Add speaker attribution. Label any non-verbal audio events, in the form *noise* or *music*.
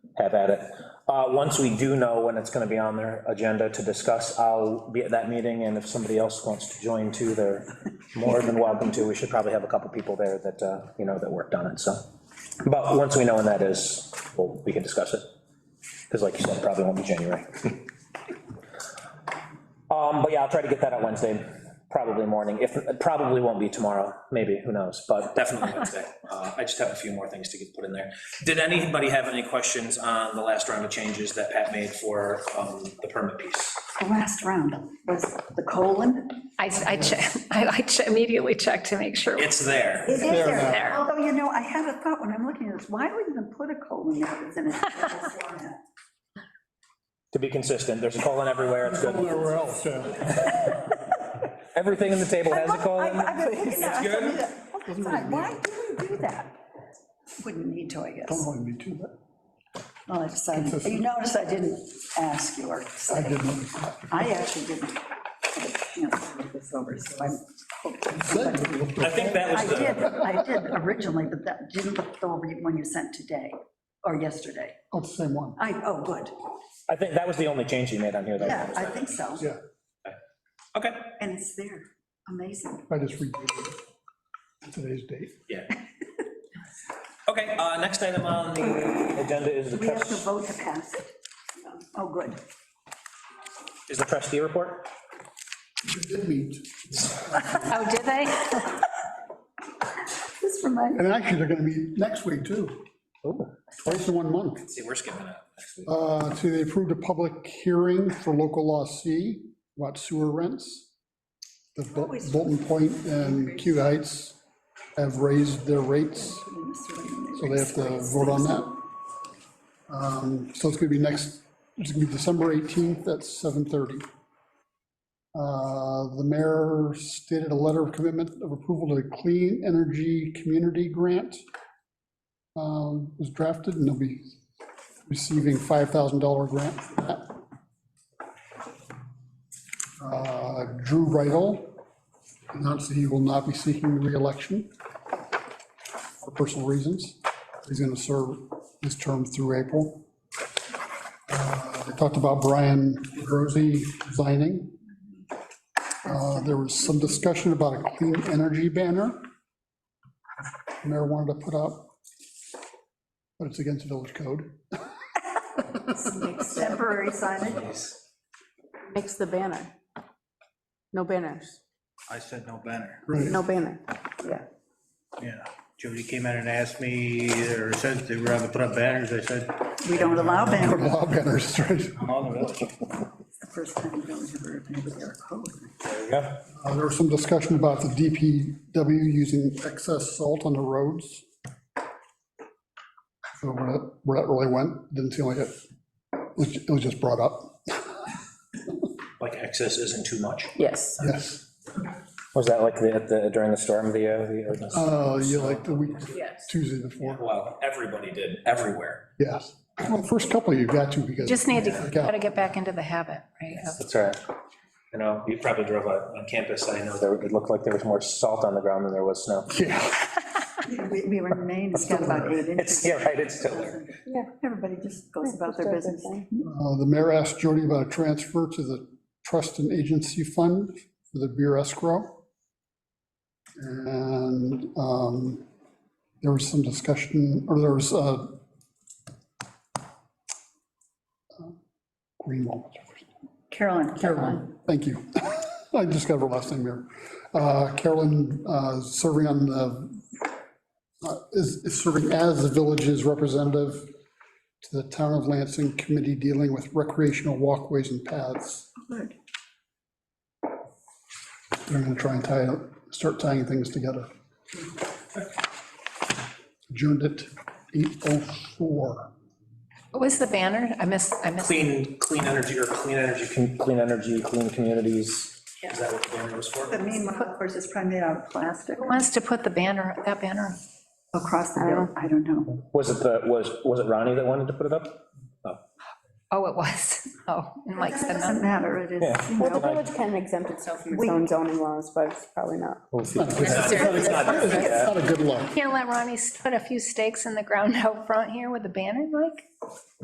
Speaker 1: have at it. Uh, Once we do know when it's going to be on their agenda to discuss, I'll be at that meeting, and if somebody else wants to join too, they're more than welcome to. We should probably have a couple people there that, uh, you know, that worked on it, so. But once we know when that is, well, we can discuss it. Because like you said, probably won't be January. Um, but yeah, I'll try to get that out Wednesday, probably morning, if, it probably won't be tomorrow, maybe, who knows, but definitely Wednesday. Uh, I just have a few more things to get put in there. Did anybody have any questions on the last round of changes that Pat made for, um, the permit piece?
Speaker 2: The last round was the colon.
Speaker 3: I, I che- *laughs* I I che- immediately checked to make sure.
Speaker 1: It's there.
Speaker 2: It is there,
Speaker 3: now.
Speaker 2: although, you know, I had a thought when I'm looking at this, why would you even put a colon there if it's in a table format?
Speaker 1: To be consistent, there's a colon everywhere, it's good.
Speaker 4: Where else, yeah.
Speaker 1: Everything in the table has a colon.
Speaker 2: I- I've been looking at it, I said, "Look at that, Why do we do that? Wouldn't need to, I
Speaker 4: Don't
Speaker 2: guess.
Speaker 4: mind me too, but
Speaker 2: Well, it's, um, You notice I didn't ask you or
Speaker 4: I
Speaker 2: say,
Speaker 4: didn't.
Speaker 2: I actually didn't. you know, look this over, so I'm hoping somebody-
Speaker 4: Said it looked
Speaker 1: I think that
Speaker 2: I
Speaker 1: was
Speaker 2: did,
Speaker 1: the,
Speaker 2: I did originally, but that didn't look over when you sent today or yesterday.
Speaker 4: Oh, it's the same one,
Speaker 2: I, oh, good.
Speaker 1: I think that was the only change he made on here, though.
Speaker 2: Yeah, I think so.
Speaker 4: yeah,
Speaker 1: Okay,
Speaker 2: And it's there. Amazing.
Speaker 4: I just redated it, today's date.
Speaker 2: *laughs*
Speaker 1: yeah. Okay, uh, next item on the agenda is the
Speaker 2: We have to
Speaker 1: trustee,
Speaker 2: vote to pass it. Oh, good.
Speaker 1: is the trustee report?
Speaker 4: We did meet.
Speaker 3: Oh, did they?
Speaker 2: This reminds,
Speaker 4: And actually, they're gonna meet next week too, Oh,
Speaker 1: Ooh.
Speaker 4: twice in one month.
Speaker 1: See, we're skipping it. next week.
Speaker 4: Uh, So they approved a public hearing for local law C, about sewer rents. The Bol- Bolton Point and Q Heights have raised their rates, so they have to vote on that. Um, So it's gonna be next, it's gonna be December 18th at 7:30. Uh, The mayor stated a letter of commitment of approval to the Clean Energy Community Grant um, was drafted, and they'll be receiving $5,000 grant for that. Uh, Drew Riddle announced that he will not be seeking reelection for personal reasons. He's going to serve his term through April. Uh, They talked about Brian Rosie resigning. Uh, There was some discussion about a clean energy banner mayor wanted to put up, but it's against village code.
Speaker 2: Temporary signage.
Speaker 5: Makes the banner. No banners,
Speaker 6: I said no banner,
Speaker 4: Right.
Speaker 5: no banner.
Speaker 6: yeah. Jody came in and asked me, or said they were gonna put up banners, I said,
Speaker 2: We don't allow banners.
Speaker 4: Law banners, *laughs* right?
Speaker 6: no, no, that's
Speaker 2: First time we don't ever agree with their code.
Speaker 1: There you go.
Speaker 4: Uh, There was some discussion about the DPW using excess salt on the roads. So Where that- where that really went, didn't seem like it, it was- it was just brought up,
Speaker 1: Like excess isn't too much.
Speaker 5: Yes.
Speaker 4: yes.
Speaker 1: Was that like the, the- during the storm, the, uh, the ordinance?
Speaker 4: Uh, You like the week,
Speaker 5: Yes.
Speaker 4: Tuesday before,
Speaker 1: Well, everybody did, everywhere.
Speaker 4: yes. Well, first couple you've got to because.
Speaker 3: Just need to,
Speaker 4: Yeah.
Speaker 3: gotta get back into the habit, right? of-
Speaker 1: That's right. You know, you probably drove on on campus, I know there, it looked like there was more salt on the ground than there was snow.
Speaker 4: Yeah,
Speaker 2: We we were in Maine, it's got about eight
Speaker 1: It's,
Speaker 2: inches.
Speaker 1: *laughs* yeah, right, it's still there.
Speaker 2: Everybody just goes about their business.
Speaker 4: Uh, the mayor asked Jody about a transfer to the trust and agency fund for the beer escrow. And um, there was some discussion, or there was uh Greenwald,
Speaker 2: Carolyn. Carolyn.
Speaker 4: thank you. *laughs* I just got her last name here. Uh, Carolyn uh, serving on the, uh, is is serving as the village's representative to the Town of Lansing Committee dealing with recreational walkways and paths.
Speaker 2: Good.
Speaker 4: They're gonna try and tie, start tying things together. Adjourned at 8:04.
Speaker 3: What was the banner? I missed, I missed.
Speaker 1: Clean, clean energy, or clean energy, com- clean energy, clean communities. Is that what the banner was for?
Speaker 2: But meanwhile, of course, it's probably made out of plastic
Speaker 3: Who Wants to put the banner, that banner?
Speaker 2: across the hill. I don't know.
Speaker 1: Was it the, was, was it Ronnie that wanted to put it up?
Speaker 3: Oh, it was. *laughs* Oh, and Mike
Speaker 2: It
Speaker 3: said no.
Speaker 2: doesn't matter, it is, you
Speaker 5: Well, the
Speaker 2: know.
Speaker 5: village can exempt itself from its own zoning laws, but it's probably not.
Speaker 4: It's not a good look.
Speaker 3: *laughs* Can't let Ronnie put a few stakes in the ground out front here with the banner, Mike?